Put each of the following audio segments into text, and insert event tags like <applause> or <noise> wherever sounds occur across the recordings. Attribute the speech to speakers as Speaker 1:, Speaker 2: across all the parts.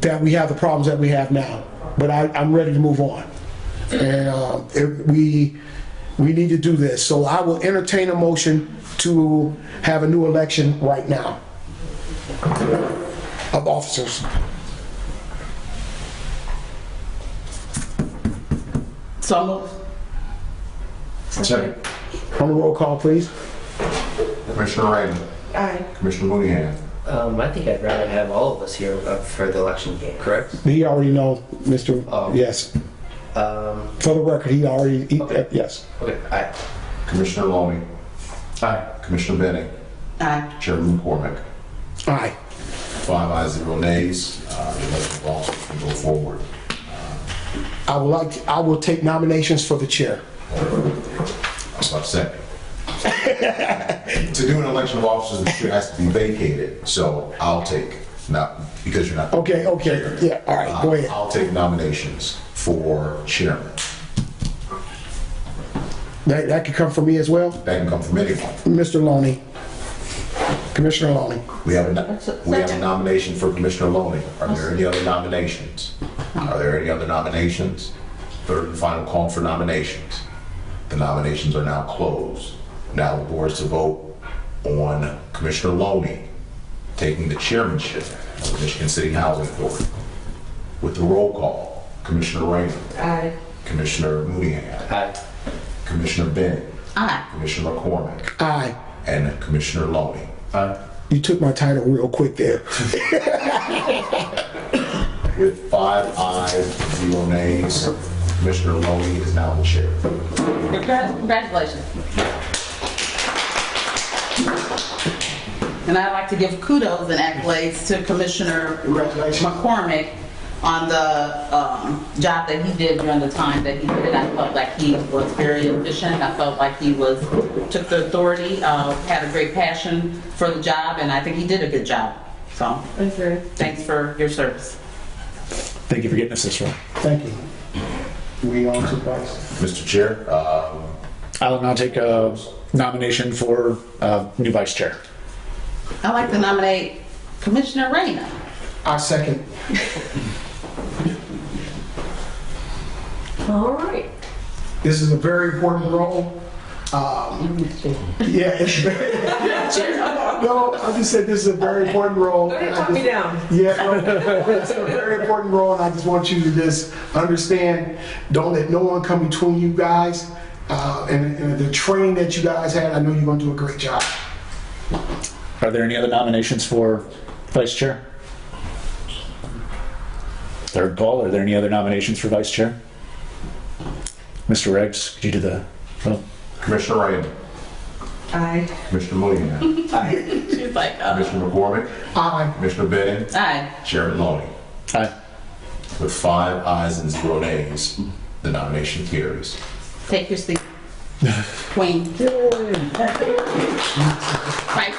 Speaker 1: that we have the problems that we have now. But I, I'm ready to move on. And uh, it, we, we need to do this. So I will entertain a motion to have a new election right now of officers.
Speaker 2: So moved.
Speaker 3: Second.
Speaker 1: On the roll call, please.
Speaker 3: Commissioner Raymond.
Speaker 4: Aye.
Speaker 3: Commissioner Mooneyhan.
Speaker 5: Um, I think I'd rather have all of us here uh, for the election, correct?
Speaker 1: He already know, Mr.
Speaker 5: Oh.
Speaker 1: Yes.
Speaker 5: Um,
Speaker 1: For the record, he already, he- uh, yes.
Speaker 5: okay, I,
Speaker 3: Commissioner Looney. Aye. Commissioner Bennett.
Speaker 2: Aye.
Speaker 3: Chairman McCormick.
Speaker 1: Aye.
Speaker 3: Five ayes, zero nays. Uh, The election of officers can go forward.
Speaker 1: I would like, I will take nominations for the chair.
Speaker 3: I'm about to say. To do an election of officers, the chair has to be vacated, so I'll take, not, because you're not.
Speaker 1: Okay, okay, yeah, all right, go ahead.
Speaker 3: I'll take nominations for chairman.
Speaker 1: That, that could come from me as well.
Speaker 3: That can come from anyone.
Speaker 1: Mr. Loney. Commissioner Loney.
Speaker 3: We have a, no- we have a nomination for Commissioner Loney. Are there any other nominations? Are there any other nominations? Third and final call for nominations. The nominations are now closed. Now the board is to vote on Commissioner Loney taking the chairmanship of the Michigan City Housing Board. With the roll call, Commissioner Raymond,
Speaker 4: Aye.
Speaker 3: Commissioner Mooneyhan,
Speaker 5: I,
Speaker 3: Commissioner Bennett,
Speaker 2: Aye.
Speaker 3: Commissioner McCormick,
Speaker 1: Aye.
Speaker 3: and Commissioner Loney.
Speaker 1: You took my title real quick there.
Speaker 3: With five ayes, zero nays, Commissioner Loney is now the chair.
Speaker 2: Congratulations. And I'd like to give kudos and accolades to Commissioner McCormick on the um, job that he did during the time that he did. I felt like he was very efficient. I felt like he was, took the authority, uh, had a great passion for the job, and I think he did a good job. So
Speaker 4: Agree.
Speaker 2: thanks for your service.
Speaker 6: Thank you for getting us this one.
Speaker 1: Thank you. We on to vice.
Speaker 3: Mr. Chair, uh,
Speaker 6: I'll now take a nomination for uh, new vice chair.
Speaker 2: I'd like to nominate Commissioner Reyna.
Speaker 1: I second.
Speaker 4: All right.
Speaker 1: This is a very important role. Yeah, it's very. <laughs> No, I just said this is a very important role.
Speaker 4: Go ahead, talk me down.
Speaker 1: Yeah, no, it's a very important role, and I just want you to just understand, don't let no one come between you guys. Uh, and, and the training that you guys had, I know you're gonna do a great job.
Speaker 6: Are there any other nominations for vice chair? Third call, are there any other nominations for vice chair? Mr. Regs, could you do the, oh,
Speaker 3: Commissioner Raymond,
Speaker 4: Aye.
Speaker 3: Commissioner Mooneyhan,
Speaker 2: She's like, uh,
Speaker 3: Commissioner McCormick,
Speaker 1: Aye.
Speaker 3: Commissioner Bennett,
Speaker 2: aye.
Speaker 3: Chairman Loney.
Speaker 6: aye.
Speaker 3: With five ayes and zero nays, the nomination carries.
Speaker 2: Take your seat. Queen. Right.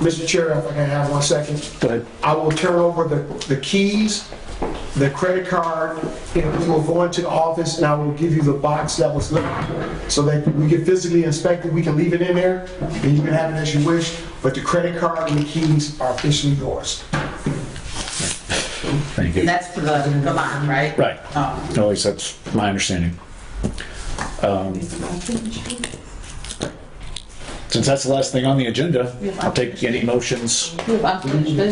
Speaker 1: Mr. Chair, if I can have one second.
Speaker 6: Go ahead.
Speaker 1: I will turn over the, the keys, the credit card, and we will go into the office and I will give you the box that was left. So that we can physically inspect it, we can leave it in there, and you can have it as you wish, but the credit card and the keys are officially yours.
Speaker 6: Thank you.
Speaker 2: That's for the, the line, right?
Speaker 6: Right,
Speaker 2: Oh,
Speaker 6: at least that's my understanding. Um, Since that's the last thing on the agenda, I'll take any motions.
Speaker 2: we have unfinished business.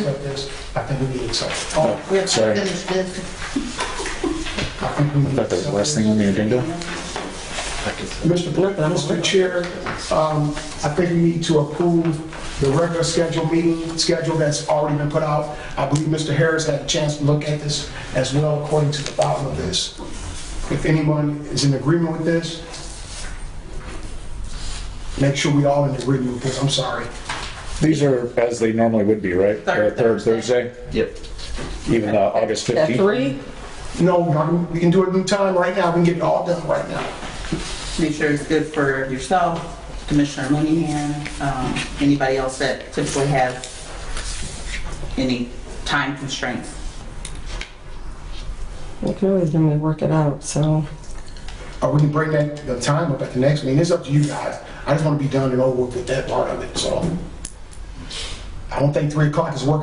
Speaker 1: Accept this. I think we need something.
Speaker 2: We have
Speaker 6: Sorry.
Speaker 2: unfinished business.
Speaker 6: I thought that was the last thing on the agenda.
Speaker 1: Mr. Blunt, Mr. Chair, um, I think we need to approve the regular scheduled meeting schedule that's already been put out. I believe Mr. Harris had a chance to look at this as well according to the bottom of this. If anyone is in agreement with this, make sure we all in agreement with this, I'm sorry.
Speaker 6: These are as they normally would be, right?
Speaker 2: Third
Speaker 6: Uh, Third Thursday,
Speaker 5: yep.
Speaker 6: even uh, August
Speaker 4: At
Speaker 6: 15th.
Speaker 4: three?
Speaker 1: No, y'all, we can do it in time right now, we can get it all done right now.
Speaker 2: Make sure it's good for yourself, Commissioner Mooneyhan, um, anybody else that typically has any time constraints.
Speaker 4: Well, clearly then we work it out, so.
Speaker 1: Or we can bring that, the time up at the next meeting, it's up to you guys. I just want to be done and over with that part of it, so. I don't think 3 o'clock is working